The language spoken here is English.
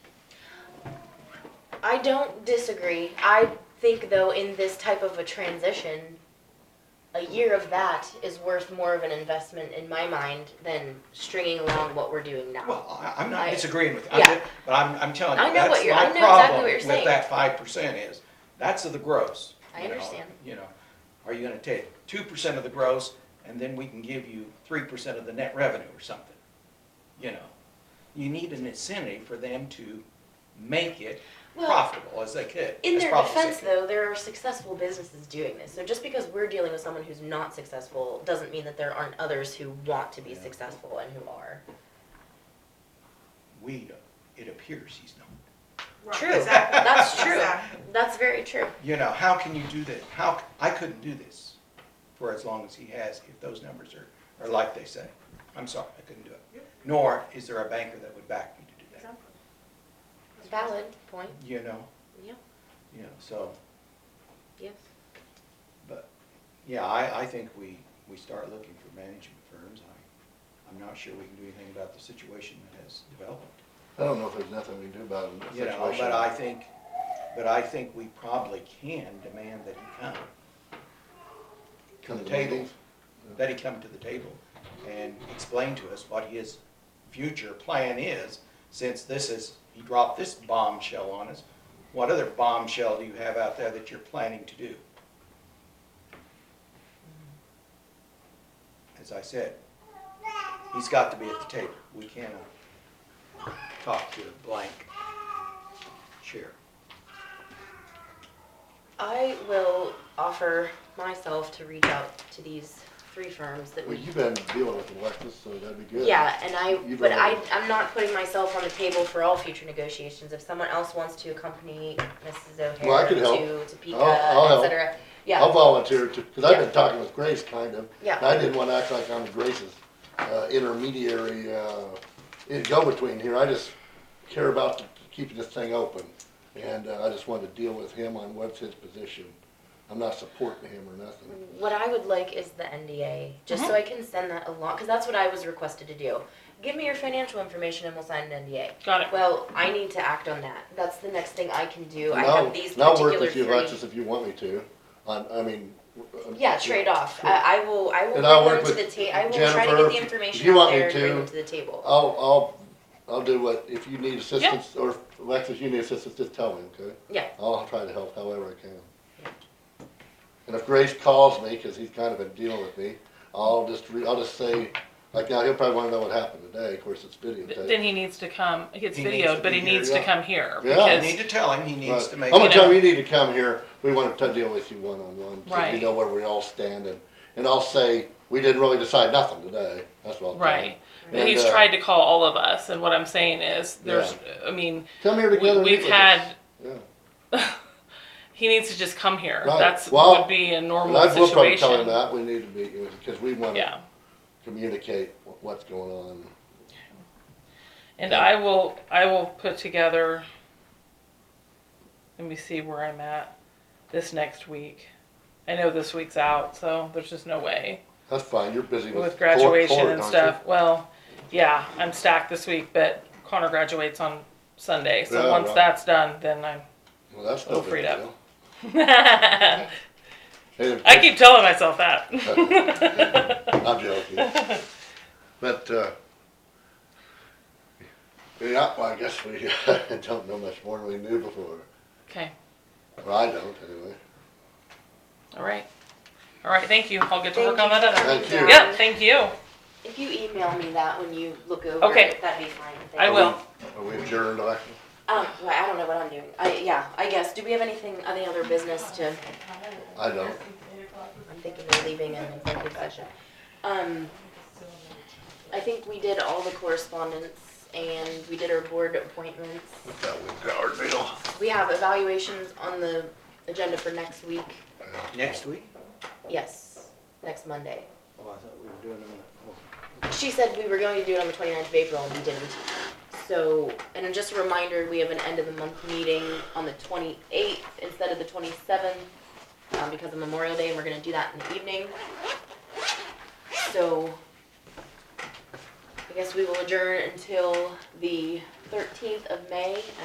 I don't disagree. I think though in this type of a transition, a year of that is worth more of an investment in my mind than stringing along what we're doing now. Well, I, I'm not I- disagreeing with you, I'm yeah. ju- but I'm, I'm telling I you, know what that's you're- I my know exactly problem what you're with saying. that five percent is, that's of the gross. I you know, understand. You know, are you gonna take two percent of the gross, and then we can give you three percent of the net revenue or something? You know, you need an incentive for them to make it Well, profitable as they could. In as their profitable as defense, they could. though, there are successful businesses doing this. So just because we're dealing with someone who's not successful doesn't mean that there aren't others who want to be Yeah. successful and who are. We, it appears he's not. Right, True. exactly, That's true. exactly. That's very true. You know, how can you do that? How, c- I couldn't do this for as long as he has if those numbers are, are like they say. I'm sorry, I couldn't do it. Yep. Nor is there a banker that would back me to do that, Exactly. Valid point. you know, Yeah. you know, so, Yes. but, yeah, I, I think we, we start looking for management firms. I, I'm not sure we can do anything about the situation that has developed. I don't know if there's nothing we can do about it. You know, but I think, but I think we probably can demand that he come. To Come the to the table, meetings? that he come to the table and explain to us what his future plan is, since this is, he dropped this bombshell on us. What other bombshell do you have out there that you're planning to do? As I said, he's got to be at the table. We cannot talk to a blank chair. I will offer myself to reach out to these three firms that Well, we. you've been dealing with Alexis, so that'd be good. Yeah, and I, You've but I, already- I'm not putting myself on the table for all future negotiations. If someone else wants to accompany Mrs. Well, I O'Hare could help. to Topeka, I'll- I'll et help. cetera. I'll Yeah, volunteer to, because I've Yeah. been talking with Grace, kind of. Yeah. And I didn't want to act like I'm Grace's uh, intermediary, uh, in- go-between here. I just care about the- keeping this thing open. And uh, I just wanted to deal with him on what's his position. I'm not supporting him or nothing. what I would like is the NDA, just Mm-hmm. so I can send that along, cause that's what I was requested to do. Give me your financial information and we'll sign an NDA. Got it. Well, I need to act on that. That's the next thing I can do. I And I'll- have these and I'll work particular with you, Alexis, three. if you want me to, on, I mean. uh, Yeah, trade off. I, I will, I will And I'll bring work them to the with ta, I will try to Jennifer, get the if information you out want me there and bring to. them to the table. I'll, I'll, I'll do what, if you need assistance, or if Alexis, you need assistance, just tell me, okay? Yeah, I'll try to help however I can. And if Grace calls me, cause he's kind of been dealing with me, I'll just re, I'll just say, like now, he'll probably wanna know what happened today, of course, it's Th- videotape. Then he needs to come, he gets He needs to videoed, but be he here, needs to yeah. come here. Yeah. I Because need to tell him, he needs to But I'm make. gonna it- tell him, you need to come here, we wanna t- deal with you one-on-one, so you Right. know where we all stand, and, and I'll say, we didn't really decide nothing today, that's what I'll tell him. Right. But he's And, uh, tried to call all of us, and what I'm saying is, there's, I mean, Come here we, together. and meet we've with us. had, Yeah. he needs to just come here. Right. That's, Well, would be a And normal I will probably tell him situation. that, we need to meet, you, cause we wanna Yeah. communicate wh- what's going on. And I will, I will put together, let me see where I'm at this next week. I know this week's out, so there's just no way. That's fine, you're busy with. with court- graduation court, and aren't you? stuff. Well, yeah, I'm stacked this week, but Connor graduates on Sunday, so Yeah, once right. that's done, then I'm. Well, that's no We'll big free it up. deal. I Hey, the- keep telling myself that. I'm joking. But, uh, yeah, well, I guess we don't know much more than we knew before. okay, Well, I don't, anyway. all right, all right. Thank you. I'll get to Thank work on you that for other. Thank reaching you. out. Yep. Thank you. If you email me that when you look over Okay. it, that'd be fine. I Thank will. Are we adjourned, Alexis? you. Um, well, I don't know what I'm doing. I, yeah, I guess. Do we have anything, any other business to, I don't. I'm thinking of leaving an executive session. Um, I think we did all the correspondence and we did our board appointments. That was our deal. We have evaluations on the agenda for next week. Next week? Yes, next Monday. Oh, I thought we were doing them. oh. She said we were going to do it on the 29th of April, and we didn't. So, and then just a reminder, we have an end of the month meeting on the 28th instead of the 27th um, because of Memorial Day, and we're going to do that in the evening. So, I guess we will adjourn until the 13th of May